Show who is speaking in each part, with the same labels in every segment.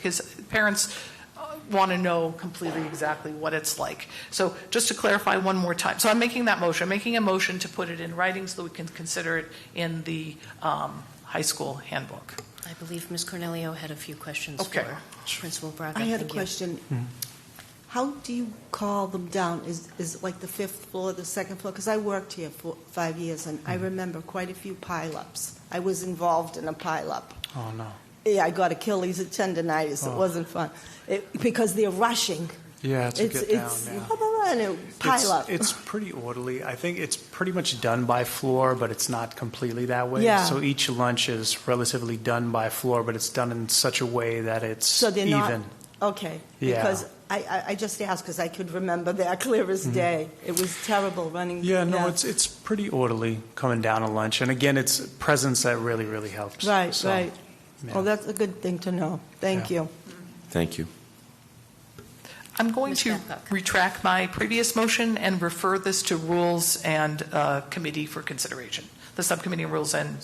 Speaker 1: because parents want to know completely exactly what it's like. So just to clarify one more time, so I'm making that motion, I'm making a motion to put it in writing so that we can consider it in the um, high school handbook.
Speaker 2: I believe Ms. Cornelio had a few questions
Speaker 1: Okay.
Speaker 2: for Principal Braga.
Speaker 3: I had a
Speaker 2: Thank you.
Speaker 3: question.
Speaker 4: Hmm.
Speaker 3: How do you call them down? Is, is it like the fifth floor, the second floor? Because I worked here for five years, and
Speaker 4: Hmm.
Speaker 3: I remember quite a few pileups. I was involved in a pileup.
Speaker 4: Oh, no.
Speaker 3: Yeah, I got Achilles tendonitis. It
Speaker 4: Oh.
Speaker 3: wasn't fun. It, because they're rushing.
Speaker 4: Yeah, to
Speaker 3: It's,
Speaker 4: get down,
Speaker 3: it's,
Speaker 4: yeah.
Speaker 3: blah, blah, blah, and it
Speaker 4: It's-
Speaker 3: pile up.
Speaker 4: It's pretty orderly. I think it's pretty much done by floor, but it's not completely that way.
Speaker 3: Yeah.
Speaker 4: So each lunch is relatively done by floor, but it's done in such a way that it's
Speaker 3: So they're not-
Speaker 4: even.
Speaker 3: Okay.
Speaker 4: Yeah.
Speaker 3: Because I, I, I just asked because I could remember that clear as day. It was terrible running.
Speaker 4: Hmm. Yeah, no, it's, it's pretty orderly coming down to lunch. And again, it's presence that really, really helps.
Speaker 3: Right,
Speaker 4: So,
Speaker 3: right.
Speaker 4: yeah.
Speaker 3: Well, that's a good thing to know. Thank
Speaker 4: Yeah.
Speaker 3: you.
Speaker 5: Thank you.
Speaker 1: I'm going
Speaker 2: Ms.
Speaker 1: to
Speaker 2: Babcock.
Speaker 1: retract my previous motion and refer this to Rules and uh, Committee for consideration, the Subcommittee on Rules and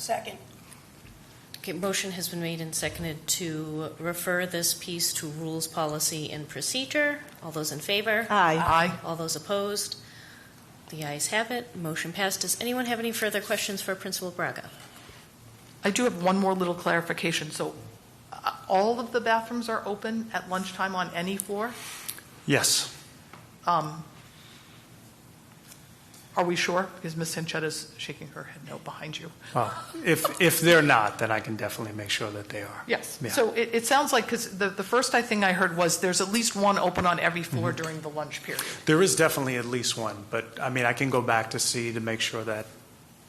Speaker 2: Okay, motion has been made and seconded to refer this piece to Rules, Policy, and Procedure. All those in favor?
Speaker 3: Aye.
Speaker 1: I.
Speaker 2: All those opposed? The ayes have it. Motion passed. Does anyone have any further questions for Principal Braga?
Speaker 1: I do have one more little clarification. So uh, all of the bathrooms are open at lunchtime on any floor?
Speaker 4: Yes.
Speaker 1: Um, Are we sure? Because Ms. Sanchetta's shaking her head no behind you.
Speaker 4: Well, if, if they're not, then I can definitely make sure that they are.
Speaker 1: Yes.
Speaker 4: Yeah.
Speaker 1: So it, it sounds like, because the, the first I think I heard was there's at least one open on every floor
Speaker 4: Mm-hmm.
Speaker 1: during the lunch period.
Speaker 4: There is definitely at least one, but I mean, I can go back to see to make sure that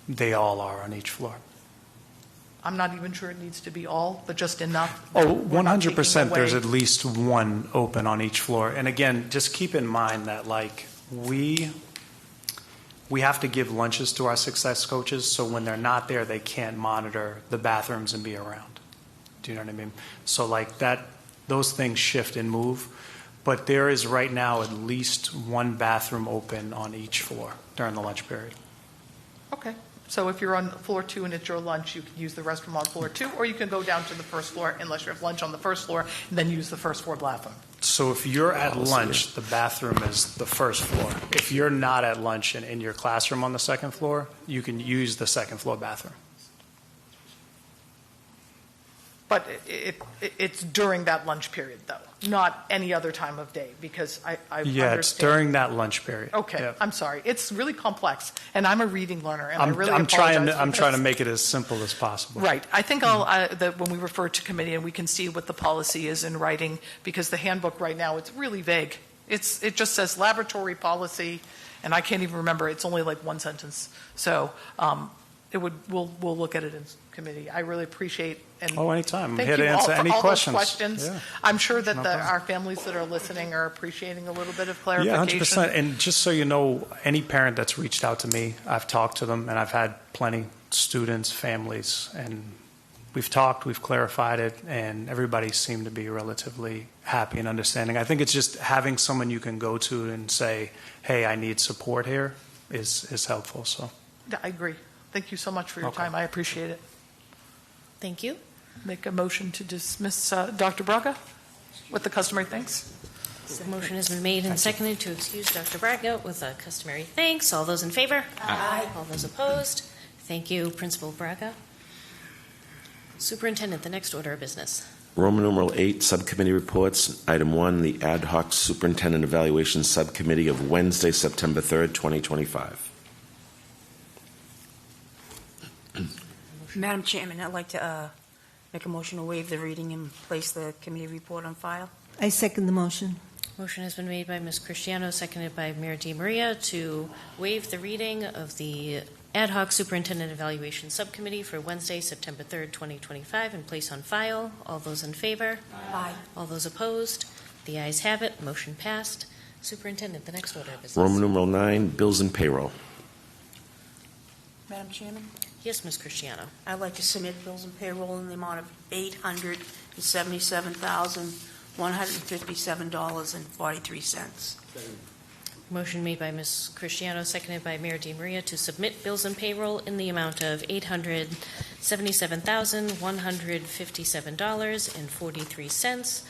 Speaker 4: they all are on each floor.
Speaker 1: I'm not even sure it needs to be all, but just enough.
Speaker 4: Oh,
Speaker 1: We're not taking
Speaker 4: 100%, there's
Speaker 1: away-
Speaker 4: at least one open on each floor. And again, just keep in mind that like, we, we have to give lunches to our success coaches, so when they're not there, they can't monitor the bathrooms and be around. Do you know what I mean? So like that, those things shift and move, but there is right now at least one bathroom open on each floor during the lunch period.
Speaker 1: Okay. So if you're on floor two and it's your lunch, you can use the restroom on floor two, or you can go down to the first floor unless you have lunch on the first floor, and then use the first floor bathroom.
Speaker 4: So if you're at
Speaker 1: Oh,
Speaker 5: Policy.
Speaker 4: lunch, the bathroom is the first floor. If you're not at lunch and in your classroom on the second floor, you can use the second floor bathroom.
Speaker 1: But it, it, it's during that lunch period, though, not any other time of day, because I, I understand.
Speaker 4: Yeah, it's during that lunch period.
Speaker 1: Okay,
Speaker 4: Yep.
Speaker 1: I'm sorry. It's really complex, and I'm a reading learner, and I
Speaker 4: I'm,
Speaker 1: really
Speaker 4: I'm
Speaker 1: apologize
Speaker 4: trying, to- I'm
Speaker 1: for
Speaker 4: trying to
Speaker 1: this.
Speaker 4: make it as simple as possible.
Speaker 1: Right. I think I'll, uh, that when we refer to committee, and we can see what the policy is in writing, because the handbook right now, it's really vague. It's, it just says laboratory policy, and I can't even remember. It's only like one sentence. So um, it would, we'll, we'll look at it in committee. I really appreciate and
Speaker 4: Oh, anytime. I'm
Speaker 1: Thank
Speaker 4: here to
Speaker 1: you all
Speaker 4: answer
Speaker 1: for
Speaker 4: any
Speaker 1: all those
Speaker 4: questions.
Speaker 1: questions.
Speaker 4: Yeah.
Speaker 1: I'm sure that
Speaker 4: No
Speaker 1: the-
Speaker 4: problem.
Speaker 1: our families that are listening are appreciating a little bit of
Speaker 4: Yeah,
Speaker 1: clarification.
Speaker 4: 100%. And just so you know, any parent that's reached out to me, I've talked to them, and I've had plenty, students, families, and we've talked, we've clarified it, and everybody seemed to be relatively happy and understanding. I think it's just having someone you can go to and say, hey, I need support here is, is helpful, so.
Speaker 1: I agree. Thank you so much for your
Speaker 4: Okay.
Speaker 1: time. I appreciate it.
Speaker 2: Thank you.
Speaker 1: Make a motion to dismiss uh, Dr. Braga with the customary thanks.
Speaker 2: Motion has been made and seconded to excuse Dr. Braga with a customary thanks. All those in favor? Aye. All those opposed? Thank you, Principal Braga. Superintendent, the next order of business.
Speaker 5: Roman numeral eight, subcommittee reports. Item one, the ad hoc superintendent evaluation subcommittee of Wednesday, September 3rd, 2025.
Speaker 6: Madam Chairman, I'd like to uh, make a motion to waive the reading and place the committee report on file.
Speaker 3: I second the motion.
Speaker 2: Motion has been made by Ms. Cristiano, seconded by Mayor Di Maria to waive the reading of the Ad hoc Superintendent Evaluation Subcommittee for Wednesday, September 3rd, 2025, and place on file. All those in favor?
Speaker 6: Aye.
Speaker 2: All those opposed? The ayes have it. Motion passed. Superintendent, the next order of business.
Speaker 5: Roman numeral nine, bills and payroll.
Speaker 6: Madam Chairman,
Speaker 2: Yes, Ms. Cristiano.
Speaker 6: I'd like to submit bills and payroll in the amount of $877,157.43.
Speaker 2: Motion made by Ms. Cristiano, seconded by Mayor Di Maria to submit bills and payroll in the amount of $877,157.43